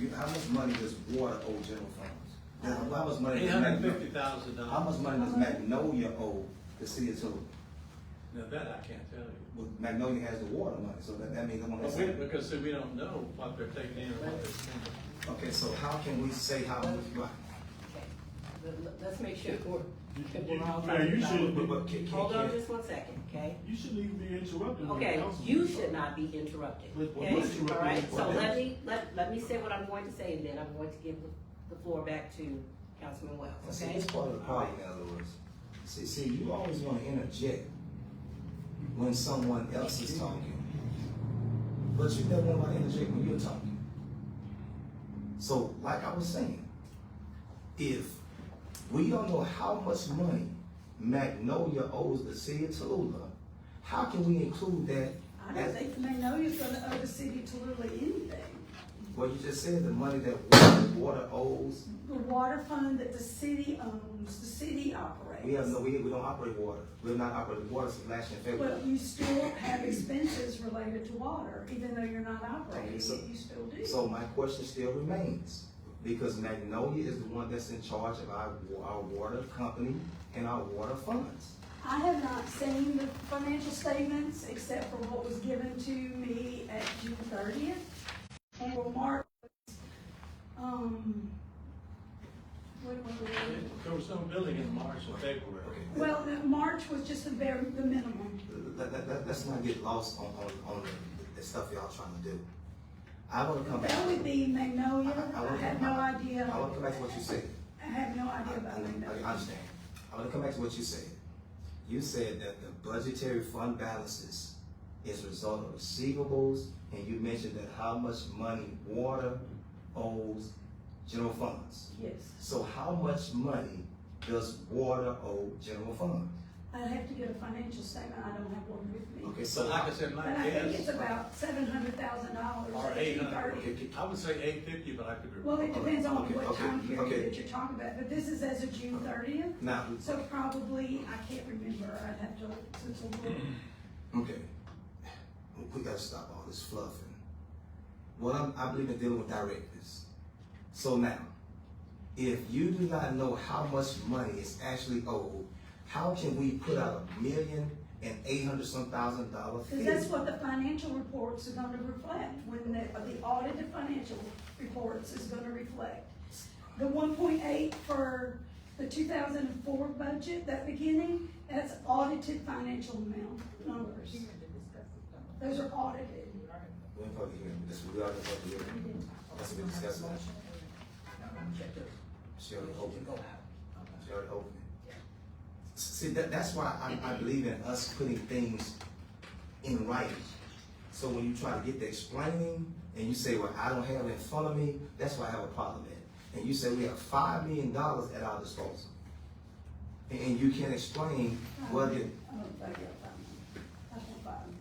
you, how much money does water owe general funds? Does- How much money? Eight does hundred and Magno- fifty thousand dollars. How much money does Magnolia owe the city of Tallulah? Now, that I can't tell you. Well, Magnolia has the water money, so that, that means I'm But gonna we, say. because see, we don't know what they're taking in and what they're spending. Okay, so how can we say how much, right? Okay, Let- let- let's make sure we're, that we're all. Now, talking you about- should- But, but can, can, Hold on can, just one second, okay? You shouldn't even be interrupting. when the Okay, council you is should talking. not be interrupted, But- but okay? what's interrupting All right, is so what let is- me, let, let me say what I'm going to say, and then I'm going to give the floor back to Councilman Wells, see, okay? it's part of the problem, in other words. See, see, you always wanna interject when someone else is talking. But you never want to interject when you're talking. So, like I was saying, if we don't know how much money Magnolia owes the city of Tallulah, how can we include that? I don't think Magnolia's gonna owe the city Tallulah anything. Well, you just said the money that water, water owes, The water fund that the city owns, the city operates. we have no, we, we don't operate water. We're not operating water since last year in But February. you still have expenses related to water, even though you're not operating Okay, it, so- you still do. So my question still remains, because Magnolia is the one that's in charge of our, wa- our water company and our water funds. I have not seen the financial statements except for what was given to me at June thirtieth. And Mark, um, what, what, what? There was no building in March and February. Well, the- March was just the very, the minimum. let, let, let, us not get lost on, on, on the, the stuff y'all trying to do. I wanna come back. That would be Magnolia, I- I I wanna- had no I- idea. I wanna come back to what you said. I had no I, idea I- I about Magnolia. understand. I wanna come back to what you said. You said that the budgetary fund balances is a result of receivables, and you mentioned that how much money water owes general funds. Yes, So how much money does water owe general funds? I'd have to get a financial statement, I don't have one with me. Okay, so So like I said, But my I think it's guess, about seven hundred thousand dollars. or eight hundred, I would say eight fifty, but I could. Well, it depends on Okay, what okay, time okay. period that you're talking about, but this is as of June thirtieth, now, so probably, I can't remember, I'd have to, since a little. Okay. We gotta stop all this fluffing. Well, I'm, I believe in dealing with directness. So now, if you do not know how much money is actually owed, how can we put out a million and eight hundred some thousand dollar fee? Because that's what the financial reports are gonna reflect, when the, the audited financial reports is gonna reflect. The one point eight for the two thousand and four budget, that beginning, that's audited financial amount numbers. Those are audited. We're in public hearing, this, we are in public hearing. That's what we discussed now. She already opened it. She already opened it. S- See, that, that's why I, I believe in us putting things in writing. So when you try to get the explaining and you say, well, I don't have it in front of me, that's why I have a problem with it. And you say, we have five million dollars at our disposal. And, and you can't explain what it, I don't think I'll find them. I can't find them.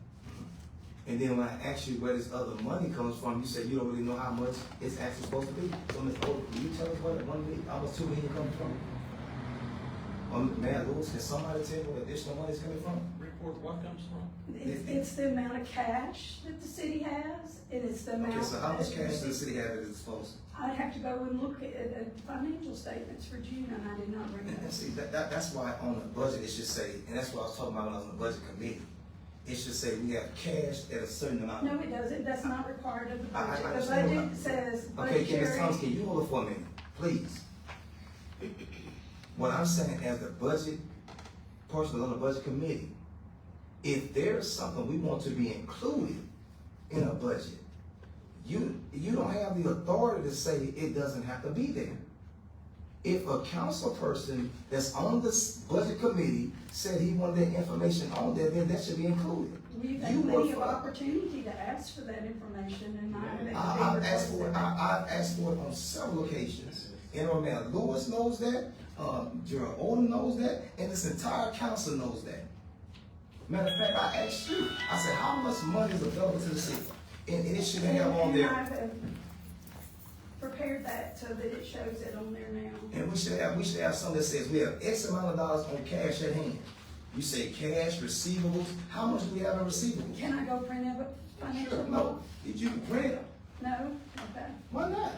And then when I ask you where this other money comes from, you say you don't really know how much it's actually supposed to be. So Ms. Oda, can you tell us where the one million, almost two million comes from? Um, Mayor Lewis, can somebody tell me where the additional money is coming from? Report what comes from? It's, it's the amount of cash that the city has, and it's the amount. Okay, so how much that- cash does the city have at its disposal? I'd have to go and look at, at the financial statements for June, and I did not bring And, and that. see, that, that, that's why on the budget, it should say, and that's what I was talking about when I was on the budget committee. It should say we have cash at a certain amount. No, it doesn't, that's not required of the I- I- I budget, the understand what I- budget says Okay, budgetary. Candace Thomas, can you hold it for a minute, please? What I'm saying as the budget, person on the budget committee, if there's something we want to be included in a budget, you, you don't have the authority to say it doesn't have to be there. If a council person that's on this budget committee said he wanted that information on there, then that should be included. We've You had work plenty of for- opportunity to ask for that information and not have it. I, I've be asked for it, requested. I, I've asked for it on several occasions. And Mayor Lewis knows that, um, Gerald Odom knows that, and this entire council knows that. Matter of fact, I asked you, I said, how much money is available to the city? And, and it should have on And I've there, uh, prepared that so that it shows it on there now. and we should have, we should have something that says we have X amount of dollars on cash at hand. You say cash, receivables, how much do we have in receivables? Can I go print out a financial Sure, report? no, did you print it? No, okay. Why not?